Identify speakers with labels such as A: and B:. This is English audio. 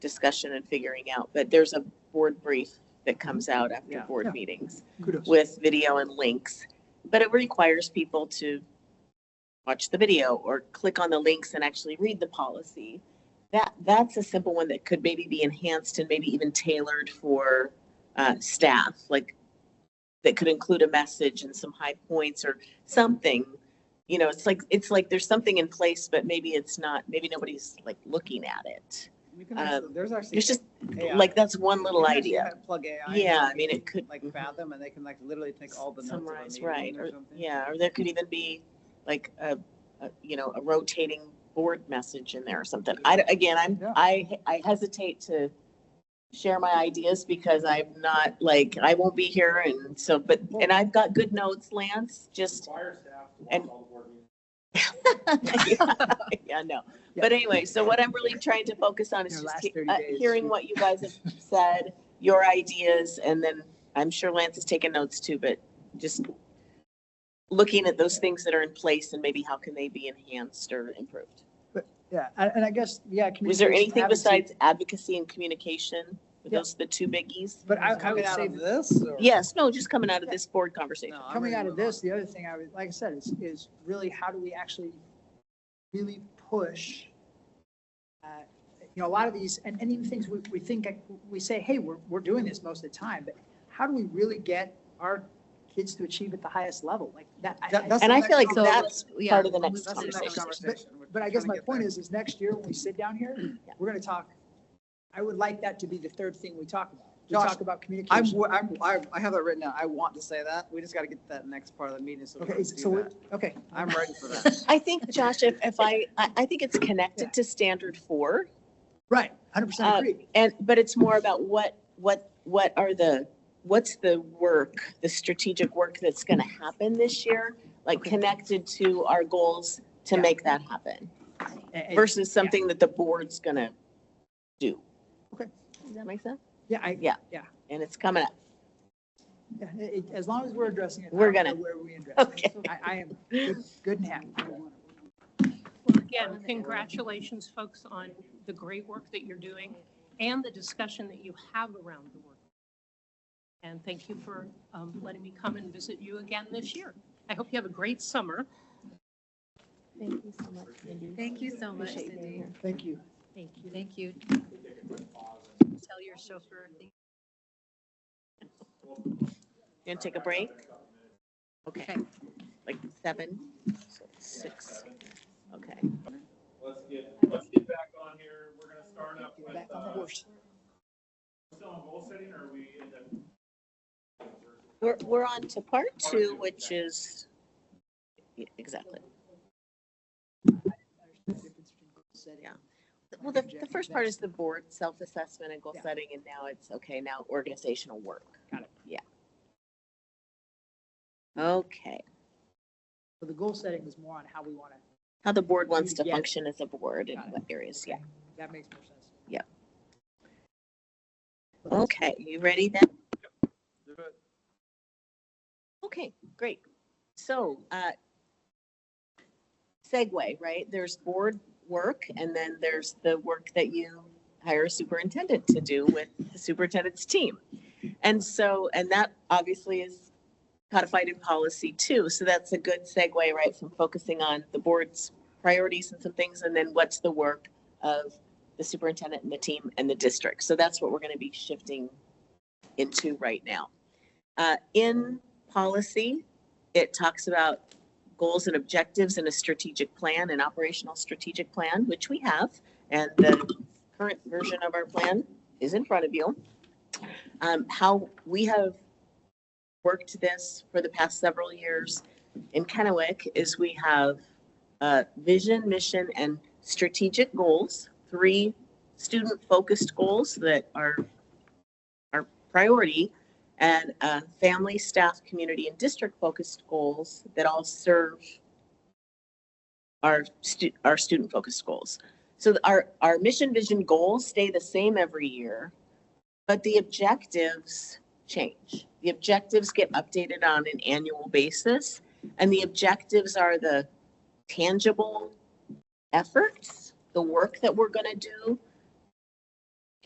A: discussion and figuring out, but there's a board brief that comes out after
B: Yeah.
A: board
C: Yeah.
A: meetings
C: Kudos.
A: with video and links. But it requires people to watch the video or click on the links and actually read the policy. That, that's a simple one that could maybe be enhanced and maybe even tailored for uh, staff, like that could include a message and some high points or something. You know, it's like, it's like there's something in place, but maybe it's not, maybe nobody's like looking at it.
B: We can actually, there's actually.
A: It's um, just
B: AI.
A: like, that's one
B: You
A: little
B: can actually
A: idea.
B: have- Plug AI.
A: Yeah,
B: and
A: I mean,
B: they
A: it
B: can,
A: could-
B: Like fathom and they can like literally take all the notes. of a
A: Summarize,
B: meeting
A: right,
B: or
A: or-
B: something.
A: Yeah, or there could even be like a, a, you know, a rotating board message in there or something. I, d- again, I'm,
B: Yeah.
A: I, I hesitate to share my ideas because I'm not, like, I won't be here and so, but, and I've got good notes, Lance, just.
D: Fire staff to
A: And-
D: watch all the board meetings.
A: Yeah, no. But anyway, so what I'm really trying to focus on is
B: Your
A: just
B: last
A: he-
B: 30
A: uh,
B: days.
A: hearing what you guys have said, your ideas, and then I'm sure Lance is taking notes too, but just looking at those things that are in place and maybe how can they be enhanced or improved?
C: Yeah, and, and I guess, yeah.
A: Was there
C: communication,
A: anything
C: advocacy-
A: besides advocacy and communication? Were
C: Yeah.
A: those the two biggies?
C: But I, I
B: Coming
C: would
B: out
C: say,
B: of this or?
A: Yes, no, just coming out of this board conversation.
B: No, I'm
C: coming
B: ready
C: out
B: to
C: of
B: move on.
C: this, the other thing I would, like I said, is, is really how do we actually really push? uh, You know, a lot of these, and, and even things we, we think, we say, hey, we're, we're doing this most of the time, but how do we really get our kids to achieve at the highest level? Like that. I-
B: That-
C: I-
B: that's
A: And
B: the
A: I
B: next
A: feel like
B: conversation.
A: that's
E: yeah,
A: part of the next
E: that's
B: That's the next
A: conversation.
B: conversation. We're
C: But I
B: trying
C: guess
B: to
C: my
B: get
C: point
B: there.
C: is, is next year when we sit down here, we're going to talk, I would like that to be the third thing we talk about. We
B: Josh,
C: talk about
B: I'm,
C: communication.
B: wo- I'm, I- I have that written down. I want to say that. We just got to get to that next part of the meeting. So we
C: Okay,
B: can
C: is-
B: do
C: so, we-
B: that.
C: okay.
B: I'm ready for that.
A: I think, Josh, if, if I, I, I think it's connected to standard four.
C: Right, hundred percent
A: Uh,
C: agree.
A: And, but it's more about what, what, what are the, what's the work, the strategic work that's going to happen this year? Like connected to our goals to
C: Yeah.
A: make that happen
C: And- and-
A: versus something that the board's going to do.
C: Okay.
A: Does that make sense?
C: Yeah, I,
A: Yeah.
C: Yeah.
A: And it's coming up.
C: yeah, it- as long as we're addressing it. I
A: We're
C: don't
A: gonna-
C: know Where we address it.
A: Okay.
C: I, I am good- good and happy.
F: Well, again, congratulations, folks, on the great work that you're doing and the discussion that you have around the work. And thank you for um, letting me come and visit you again this year. I hope you have a great summer.
E: Thank you so much, Cindy.
G: Thank you so much,
E: Appreciate you being
G: Cindy.
E: here.
C: Thank you.
F: Thank you.
G: Thank you. Tell your chauffeur. thank
A: You going to take a break? Okay.
G: Okay.
A: Like seven, six. Okay.
D: Let's get, let's get back on here. We're gonna start up with,
C: Back on the
D: uh,
C: horse.
D: still on goal setting or we end up?
A: We're, we're on to part two, which is, yeah, exactly. Yeah. Well, the, the first part is the board self-assessment and goal
C: Yeah.
A: setting, and now it's, okay, now organizational work.
C: Got it.
A: Yeah. Okay,
C: So the goal setting is more on how we want to,
A: how the board wants to
C: Yeah.
A: function as a board and
C: Got it.
A: what areas, yeah.
C: that makes more sense.
A: Okay, you ready then?
D: Do it.
A: Okay, great. So, uh, segue, right? There's board work and then there's the work that you hire a superintendent to do with the superintendent's team. And so, and that obviously is codified in policy too. So that's a good segue, right, from focusing on the board's priorities and some things, and then what's the work of the superintendent and the team and the district. So that's what we're going to be shifting into right now. Uh, in policy, it talks about goals and objectives in a strategic plan, an operational strategic plan, which we have. And the current version of our plan is in front of you. Um, how we have worked this for the past several years in Kennewick is we have uh, vision, mission, and strategic goals, three student-focused goals that are our priority and uh, family, staff, community, and district-focused goals that all serve our stu- our student-focused goals. So th- our our mission, vision, goals stay the same every year, but the objectives change. The objectives get updated on an annual basis, and the objectives are the tangible efforts, the work that we're going to do,